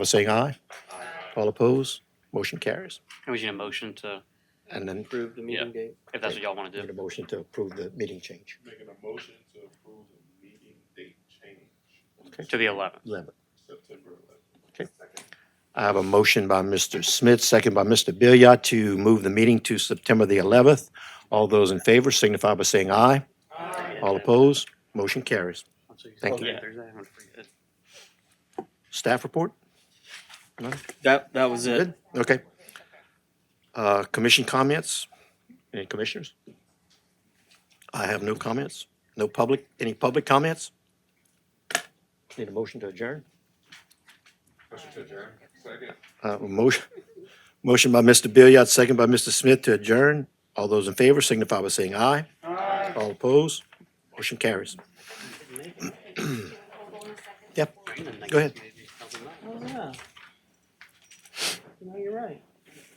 by saying aye. All opposed, motion carries. And we need a motion to, And then Approve the meeting date. if that's what y'all want to need do. a motion to approve the meeting change. Making a motion to approve the meeting date change, To the eleventh. Eleven. September eleventh. I have a motion by Mr. Smith, second by Mr. Billiard to move the meeting to September the eleventh. All those in favor signify by saying aye. All opposed, motion carries. Thank you. Staff report? That, that was it. Good, okay. Uh, commission comments? Any commissioners? I have no comments. No public, any public comments? Need a motion to adjourn? Motion to adjourn. Second. Uh, motion, motion by Mr. Billiard, second by Mr. Smith to adjourn. All those in favor signify by saying aye. Aye. All opposed? Motion carries. Yep, go ahead. Oh, yeah. No, you're right.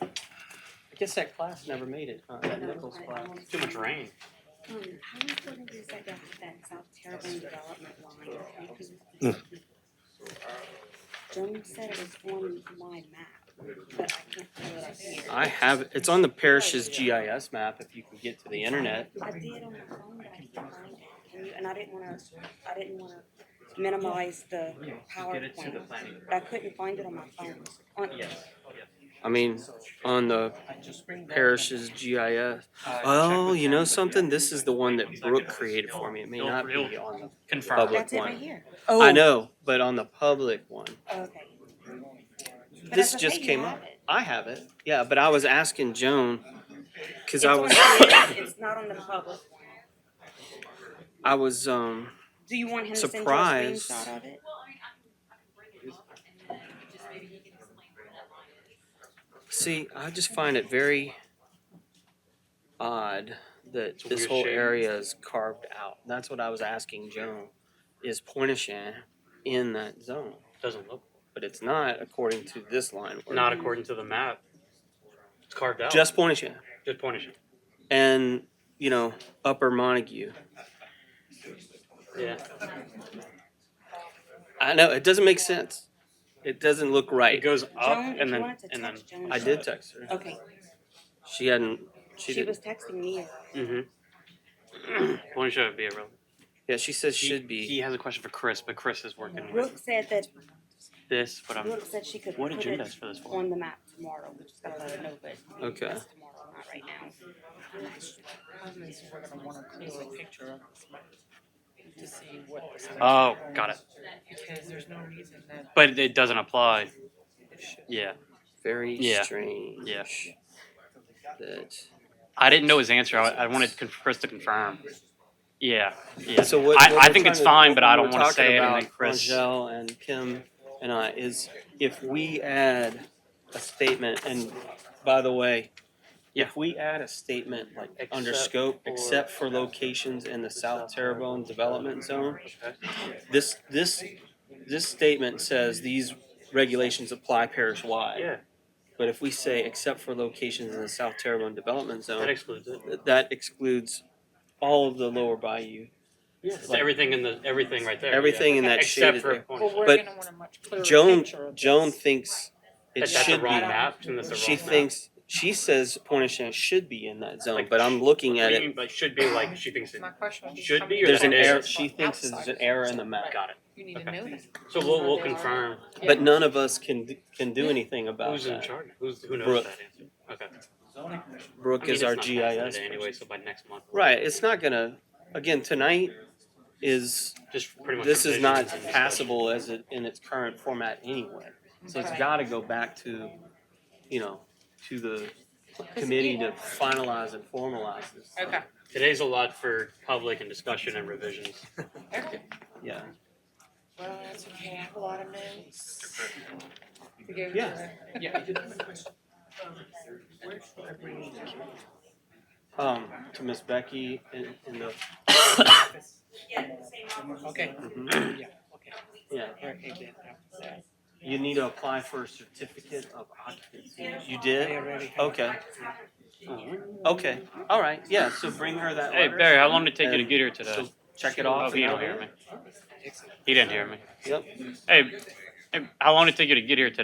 I guess that class never made it, huh? That Nichols class. Too much rain. Um, how are we gonna use that, that, that South Terrebonne development line? Because So I, Joan said it was on my map, but I can't pull it up here. I have, it's on the parish's GIS map if you can get to the internet. I did on my phone, but I can't find it. Can you- And I didn't wanna, I didn't wanna minimize the PowerPoint, but I couldn't find it on my phone. On, I mean, on the parish's GIS. Oh, you know something? This is the one that Brooke created for me. It may not be on the Confirm. Public. that's it one. right here. I know, but on the public one. Okay. But This that's just okay, you came have up. it. I have it. Yeah, but I was asking Joan because It's I on was the- It's not on the public. I was um Do you want him to send you a Surprise. screenshot of it? Well, I mean, I can, I can bring it up and then just maybe he can explain where that line is. see I just find it very odd that a this weird whole shape. area is carved out. That's what I was asking Joan. Is Pointishan in that zone? Doesn't look, But it's not according to this line. work. not according to the map. It's carved out. just Pointishan Good point. Ishan. and you know Upper Montague. Yeah. I know it doesn't make sense. It doesn't look It right. goes up Joan, and if you then, wanted to and then. touch Joan's I did text her. Okay, She hadn't. She, she did. was texting me. Mm-hmm. Point mm-hmm. show would be a real. Yeah, she says he- should be. He has a question for Chris, but Chris is working with Brooke said that this, but I'm, Brooke said she could what put agenda is it for this one? on the map tomorrow. We just gotta let her know, but Okay. that's tomorrow, not right now. to see what. the section Oh, covers, got it. Because there's no reason that But it doesn't apply. it should. Yeah. Very Yeah. strange. Yeah. That. I didn't know his answer. I, I wanted con- Chris to confirm. Yeah. Yeah. So what, I- what I we're think it's trying to- fine, but what I don't we're wanna talking say it and about, then Chris- Angel and Kim and I is if we add a statement, and by the way, Yeah. if we add a statement like under Except scope, for- except for locations in the South Terrebonne Development Zone, this this this statement says these regulations apply parish wide. Yeah. But if we say except for locations in the South Terrebonne Development Zone, That excludes it. th- that excludes all of the lower bayou. Yeah. It's Like- everything in the everything right there. yeah. Everything in that Except shaded for area. Point Well, Show. we're But gonna want a much clearer Joan picture of Joan this. thinks it That- that's should a wrong be. map. And that's a She wrong map. thinks she says Pointishan should be in that zone, Like, but I'm looking What at do you it. mean by should be like she thinks it. My question would be. Should how be many or There's an that is- error. outsiders She from thinks there's an outsiders? error in the map, Got it. You need to Okay. know that. So we'll we'll confirm but none of us can d- can do anything about who's in that. charge. Who's who knows Brooke. that answer. Okay. I Brooke mean, is it's our not passed GIS. today person. anyway, so by next month. we'll- Right. It's not gonna. Again, tonight is Just pretty much. this is not revisions and discussion. passable as it in its current format anyway. So it's Okay. got to go back to, you know, to the committee to finalize and formalize this. Okay, Today's a lot for public and discussion and revisions. okay. Yeah. Well, that's okay, I have a lot of notes. to go Yeah. through. Um, to Miss Becky in, in the, Okay, mhm. yeah, okay. yeah. Alright, I get that. Yeah. You need to apply for a certificate of occupancy. You I did? already have- Okay, okay, all right, yeah, so bring her that Hey letter. Barry, how long did it take you to And get here today? she'll Check it Oh, off. he and don't I'll- hear me. He didn't hear me. Yep. Hey, How long did it take you to get here today?